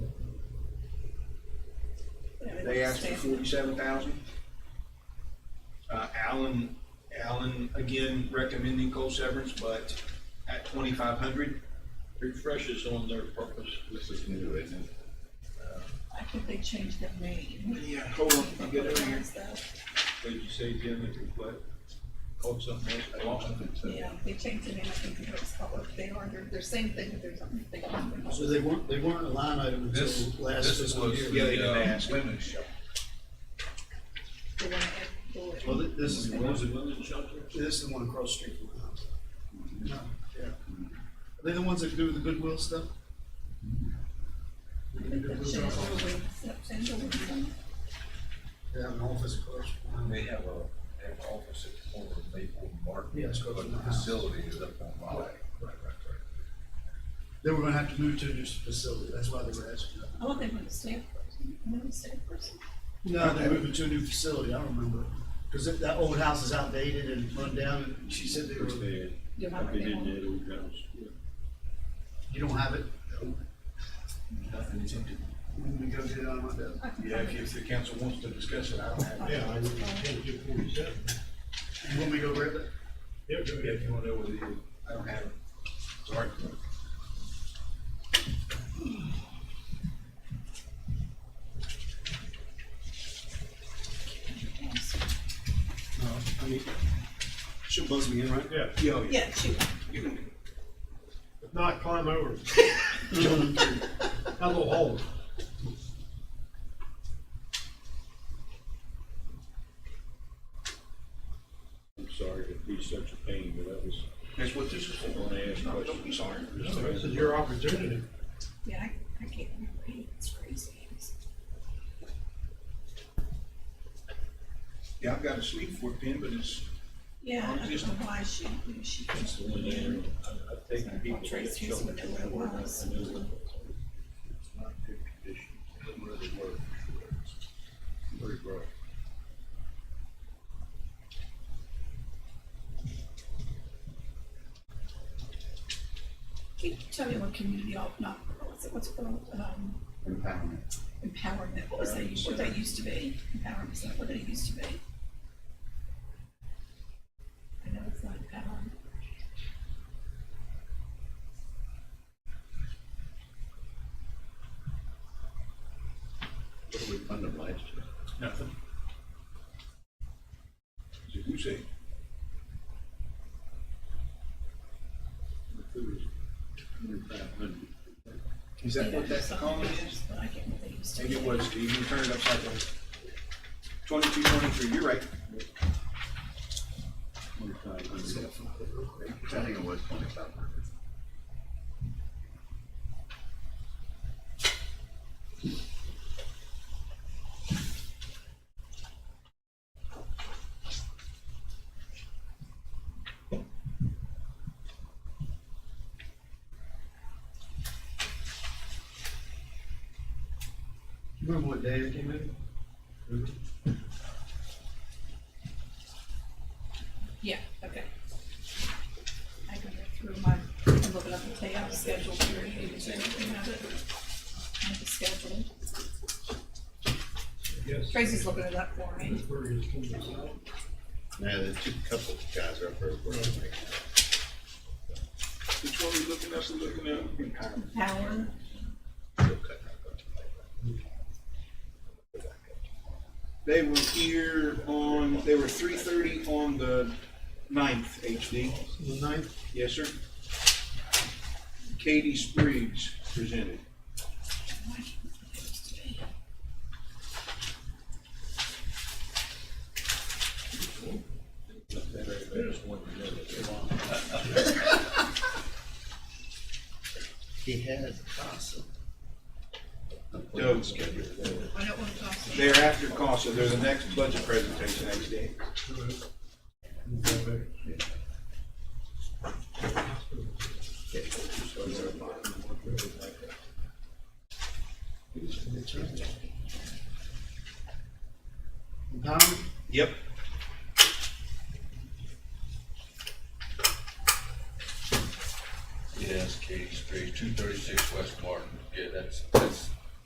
They asked for forty-seven thousand. Uh, Alan, Alan, again, recommending coal severance, but at twenty-five hundred. Refresh is on their purpose. This is new, isn't it? I think they changed their name. Yeah, hold on, I'll get it right here. What did you say, Jim, if you what? Called something else, Boston? Yeah, they changed the name, I think it was called, they are, they're, they're same thing, but there's something different. So they weren't, they weren't a line item until This, last this is fiscal was year. Yeah, they did the uh, ask. women's shelter. They wanna add bullet. Well, thi- this is, Was it women's shelter? this is the one across the street from my house. No, yeah. Are they the ones that do the Goodwill stuff? I think they changed the way September was done. They have an office across from my They house. have a, they have an office at the corner of Maple and Market. Yeah, it's close to But my the house. facility is up on Raleigh. Right, right, right. They were gonna have to move to a new facility, that's why they were asking. that. Oh, they went to Stanford, they went to Stanford. No, they're moving to a new facility, I remember. Cause that, that old house is outdated and run down, and she said they were, you You know, I've they been in want- that old house. don't have it. Nothing attempted. I'm gonna go get it out of my desk. I can Yeah, find if, if the council wants to discuss it, I don't have. Yeah, I would intend to You want me to go grab it? Yeah, if you wanna know what it is, I don't have it. Sorry. it. No, I mean, she'll buzz me in, right? Yeah, Yo, Oh, yeah. Yeah, shoot, if not, climb over. That little hole. I'm sorry to be such a pain, but that was, that's what this is for. I want to ask No, don't questions. be sorry. This is your opportunity. yeah, I, I can't remember, it's crazy. Yeah, I've got a sleep for it, pin, but it's, Yeah, I don't know why she, who she. That's the one there. I- I've taken people that Trace show Houston, me I don't know what it was. I know it's not good condition. It doesn't really work. It's Pretty rough. Can you tell me what community, op- not, what's it, what's it called, um, Empowerment. empowerment, what was that, used- what that used to be? Empowerment, is that what it used to be? I know it's not empowerment. What did we fund them last year? nothing. Is it who say? The food is twenty-five hundred. Is that what that Something column is? else, But I can't remember what it used to Maybe be. it was, Steve, you turned it upside down. Twenty-two, twenty-three, you're right. Twenty-five Just hundred. gotta find it real quick. I think it was twenty-five hundred. You Remember what day it came in? Remember? Yeah, okay. I can go through my, I'm looking up the payout schedule here, and if there's anything out of it. I have the schedule. Yes. Tracy's looking it up for me. Pittsburgh is coming out. Now, there's two couple guys up there working. Which one we looking at, we looking at? Empowerment. Power, They were here on, they were three thirty on the ninth, HD. The ninth? Yes, sir. Katie Spriggs presented. I just wanted to know that. He has CASA. Dope. I don't want to talk to you. They're after CASA, they're the next budget presentation, HD. Empowerment? Yep. Yes, Katie Street, two thirty-six West Martin, yeah, that's, that's